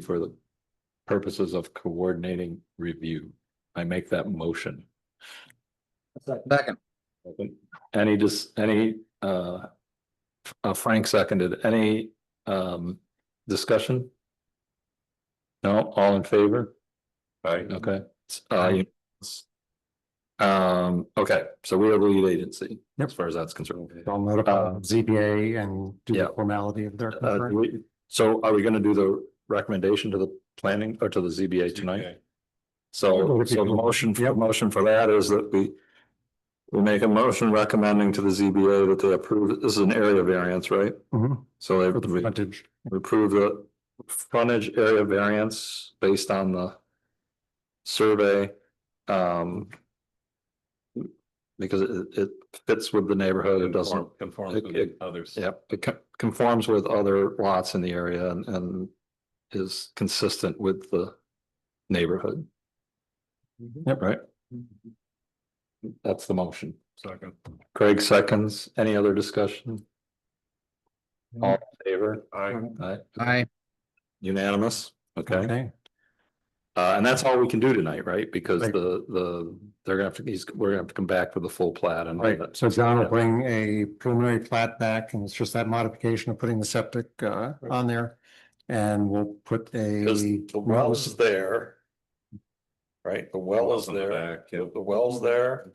for the purposes of coordinating review. I make that motion. Second. Any just, any, uh, uh, Frank seconded, any, um, discussion? No, all in favor? Right, Okay. it's, uh, it's- Um, okay, so we are the lead agency, as far as that's concerned. I'll notify Uh, ZBA and do yeah. the formality of their Uh, do concurrent. we- so are we gonna do the recommendation to the planning or to the ZBA tonight? Okay. So, so the motion, the motion for that is that we. We make a motion recommending to the ZBA that they approve, this is an area variance, right? Mhm, So they For the we frontage. approve the frontage area variance based on the. Survey, um. Because it, it fits with the neighborhood, it doesn't, Conform- Conforms it- it- with others. yep, it co- conforms with other lots in the area and, and. Is consistent with the neighborhood. Yep, right. That's the motion. Second. Craig seconds. Any other discussion? All in favor? I, Aye. Aye. Unanimous? Okay. Okay, Uh, and that's all we can do tonight, right? Because Right. the, the, they're gonna have to, he's, we're gonna have to come back with the full plat and. all right. that. So John will bring a preliminary plat back and it's just that modification of putting the septic uh on there. And we'll put Because a. the well is there. Right? The well is Wells in the there. back, The yeah. the well's there.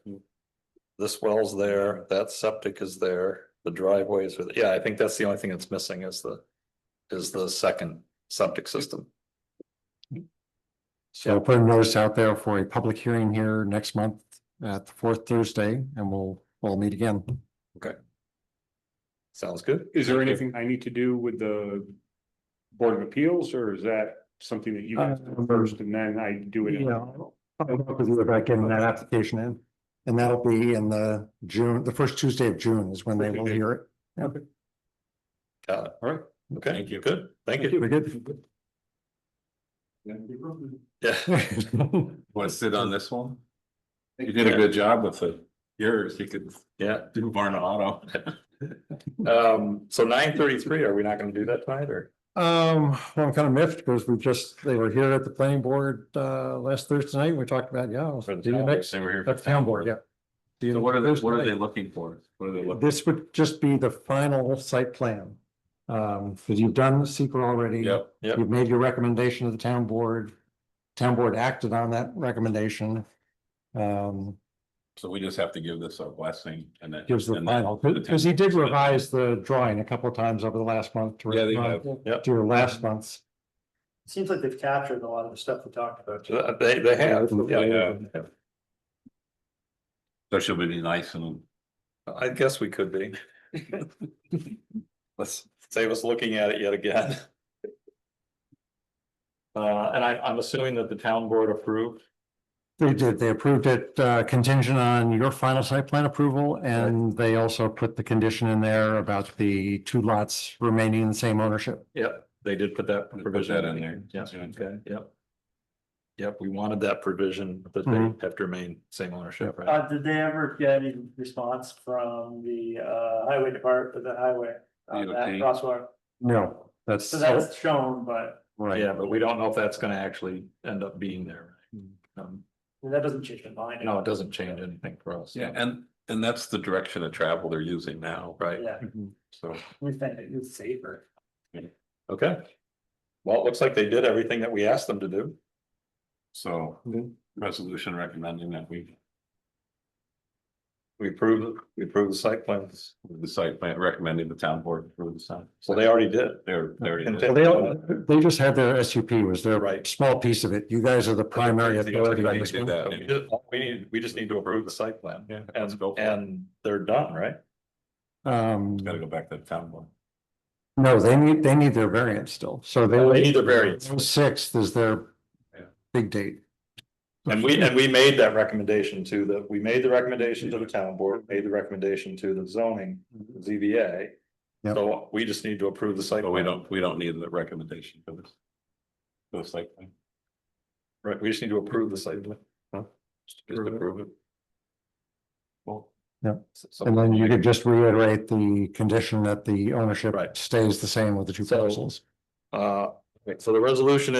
This well's there. That septic is there. The driveways are, th- yeah, I think that's the only thing that's missing is the, is the second septic system. So I'll put a notice out there for a public hearing here next month at the fourth Thursday and we'll, we'll meet again. Sounds good. Is there Thank you. anything I need to do with the Board of Appeals, or is that something that you guys do Um, first and then I do it? Yeah, I'll talk with you about getting that application in. And that'll be in the June, the first Tuesday of June is when they will hear it. Got it. All right. Okay. Thank you. Good. Thank you. Very good. Yeah. want to sit on this one? You did a good job with it. Yours, you could Yeah. do Varna Auto. Um, so nine thirty-three, are we not gonna do that tonight or? Um, well, I'm kind of miffed because we just, they were here at the planning board uh last Thursday night. We talked about, yeah, I'll For the do you town, next, They were here. that's town board, yeah. Do you So what are they, next what are they Thursday. looking for? What are they looking? This would just be the final site plan. Um, because you've done the secret already. Yep, Yep. You've made your recommendation to the town board. Town board acted on that recommendation. Um, so we just have to give this a blessing and then. gives the and then final, because he did revise the drawing a couple of times over the last month. to Yeah, they respond have. Yep. To your last month's. Seems like they've captured a lot of the stuff we talked about. Uh, They, they have. Yeah, yeah. Yeah. So she'll be nice and I guess we could be. Let's save us looking at it yet again. Uh, and I, I'm assuming that the town board approved. They did, they approved it uh, contingent on your final site plan approval, and they also put the condition in there about the two lots remaining in the same ownership. Yep, they did put that Put provision that in in there. there. Yeah, okay, yep. Yep, we wanted that provision that Mhm. Mm-hmm. they have to remain same ownership, right? Uh, did they ever get any response from the uh highway department, the highway? On that DOT. crosswalk, No, that's, so Oh. that's shown, but right, Yeah, but we don't know if that's gonna actually end up being there. Um, that doesn't change the mind. no, it doesn't change anything for us. yeah, and and that's the direction of travel they're using now, Right, Yeah, so. we think it's safer. okay. Well, it looks like they did everything that we asked them to do. So resolution recommending that we We approved, we approved the site plans. the site plan recommending the town board approve the site. So they already did. They're, they already And did. they, all- they just had their SUP was their Right. small piece of it, you guys are the primary They already authority on this did one. that. We did- We need, we just need to approve the site plan. Yeah. Let's And, go for it. and they're done, right? Um, Gotta go back to the town board. no, they need, they need their variance still, so they. They need their variance. Sixth is their Yeah. big date. And we, and we made that recommendation to the, we made the recommendation to the town board, made the recommendation to the zoning, ZBA. Yep. So we just need to approve the site. Mm-hmm. But we plan. don't, we don't need the recommendation for this. For the site plan. Right, we just need to approve the site. plan. Just Approve it. approve it. Well. Yeah. So- And then you could just reiterate the condition that the ownership Right. stays the same with the two So- parcels. Uh, So the resolution